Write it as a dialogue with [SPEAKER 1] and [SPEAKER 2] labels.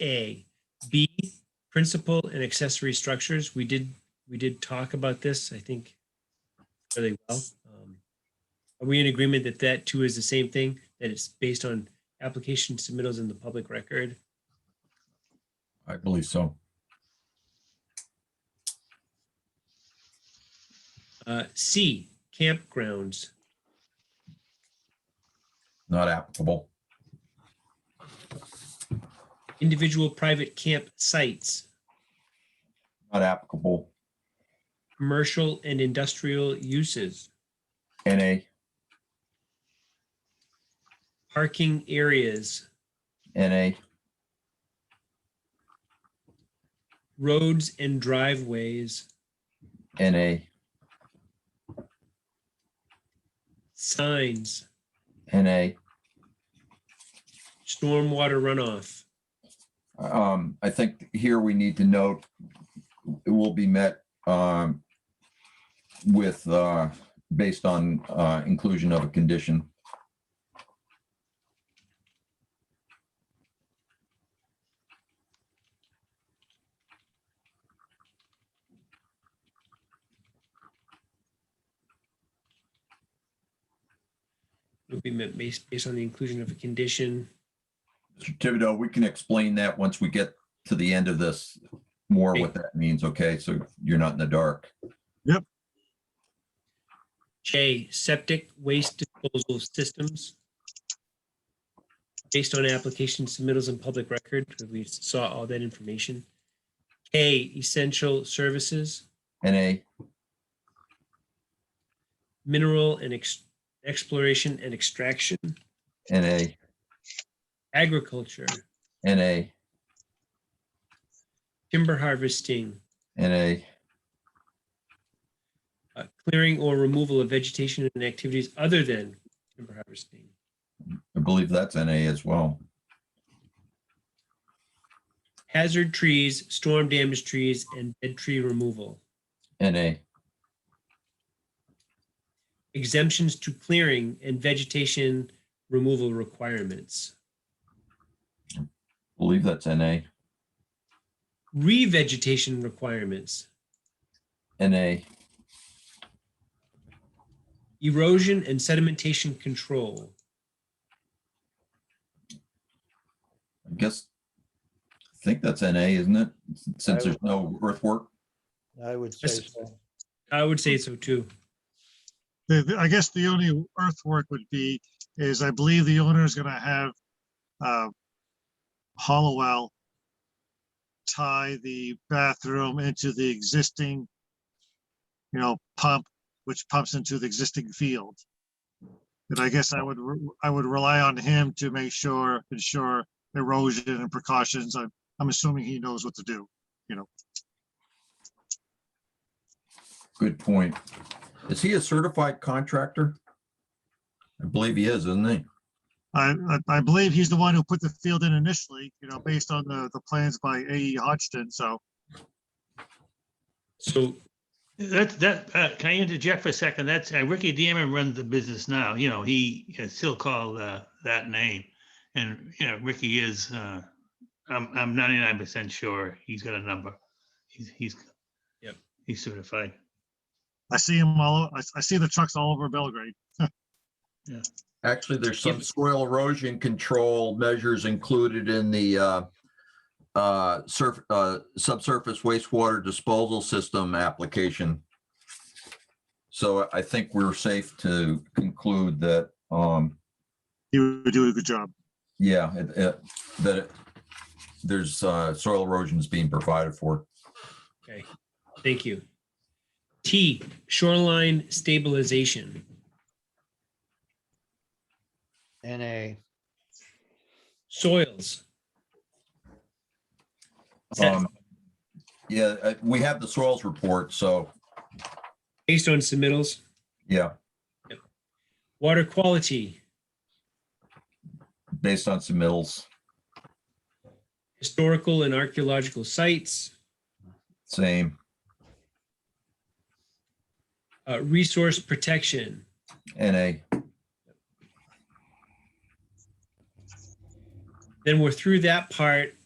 [SPEAKER 1] A. B, principal and accessory structures, we did, we did talk about this, I think, really well. Um, Are we in agreement that that too is the same thing, that it's based on application submittals in the public record?
[SPEAKER 2] I believe so.
[SPEAKER 1] Uh, C, campgrounds,
[SPEAKER 2] Not applicable.
[SPEAKER 1] individual private camp sites,
[SPEAKER 2] Not applicable.
[SPEAKER 1] commercial and industrial uses,
[SPEAKER 2] NA.
[SPEAKER 1] parking areas,
[SPEAKER 2] NA.
[SPEAKER 1] roads and driveways,
[SPEAKER 2] NA.
[SPEAKER 1] signs,
[SPEAKER 2] NA.
[SPEAKER 1] stormwater runoff,
[SPEAKER 2] Um, I think here we need to note, it will be met, um, with, uh, based on, uh, inclusion of a condition.
[SPEAKER 1] would be met based based on the inclusion of a condition.
[SPEAKER 2] Mr. Thibodeau, we can explain that once we get to the end of this, more what that means, okay? So you're not in the dark.
[SPEAKER 1] J, septic waste disposal systems. Based on application submittals and public record, because we saw all that information. K, essential services,
[SPEAKER 2] NA,
[SPEAKER 1] mineral and ex- exploration and extraction,
[SPEAKER 2] NA,
[SPEAKER 1] agriculture,
[SPEAKER 2] NA,
[SPEAKER 1] timber harvesting,
[SPEAKER 2] NA,
[SPEAKER 1] uh, clearing or removal of vegetation and activities other than timber harvesting.
[SPEAKER 2] I believe that's NA as well.
[SPEAKER 1] Hazard trees, storm damaged trees, and dead tree removal.
[SPEAKER 2] NA,
[SPEAKER 1] exemptions to clearing and vegetation removal requirements.
[SPEAKER 2] believe that's NA,
[SPEAKER 1] Revegetation requirements,
[SPEAKER 2] NA,
[SPEAKER 1] erosion and sedimentation control,
[SPEAKER 2] I guess. I think that's NA, isn't it? Since
[SPEAKER 3] I-
[SPEAKER 2] there's no earthwork,
[SPEAKER 3] I would say
[SPEAKER 1] Yes.
[SPEAKER 3] so.
[SPEAKER 1] I would say so too.
[SPEAKER 4] The- the- I guess the only earthwork would be, is I believe the owner is gonna have, uh, hollow out, tie the bathroom into the existing, you know, pump, which pumps into the existing field. And I guess I would, re- I would rely on him to make sure, ensure erosion and precautions. I'm, I'm assuming he knows what to do.
[SPEAKER 2] good point. Is he a certified contractor? I believe he is, isn't he?
[SPEAKER 4] I, I, I believe he's the one who put the field in initially, you know, based on the, the plans by A.E. Hodgson, so.
[SPEAKER 1] So
[SPEAKER 5] That, that, uh, can I interject for a second? That's, uh, Ricky Dearman runs the business now, you know, he is still called, uh, that name. And, you know, Ricky is, uh, I'm, I'm ninety-nine percent sure he's got a number. He's, he's.
[SPEAKER 1] Yep.
[SPEAKER 5] He's certified.
[SPEAKER 4] I see them all, o- I, s- I see the trucks all over Belgrade.
[SPEAKER 2] Actually, there's
[SPEAKER 1] Yeah.
[SPEAKER 2] some soil erosion control measures included in the uh, uh, surf, uh, subsurface wastewater disposal system application. So I think we're safe to conclude that, um,
[SPEAKER 4] You do a good job.
[SPEAKER 2] yeah, it- it- that it- there's uh, soil erosion is being provided for.
[SPEAKER 1] Okay, thank you. T, shoreline stabilization,
[SPEAKER 3] NA,
[SPEAKER 1] soils.
[SPEAKER 2] Um, Yeah, uh, we have the soils report, so,
[SPEAKER 1] Based on submittals,
[SPEAKER 2] yeah,
[SPEAKER 1] water quality,
[SPEAKER 2] based on submittals,
[SPEAKER 1] historical and archaeological sites,
[SPEAKER 2] same,
[SPEAKER 1] uh, resource protection,
[SPEAKER 2] NA,
[SPEAKER 1] then we're through that part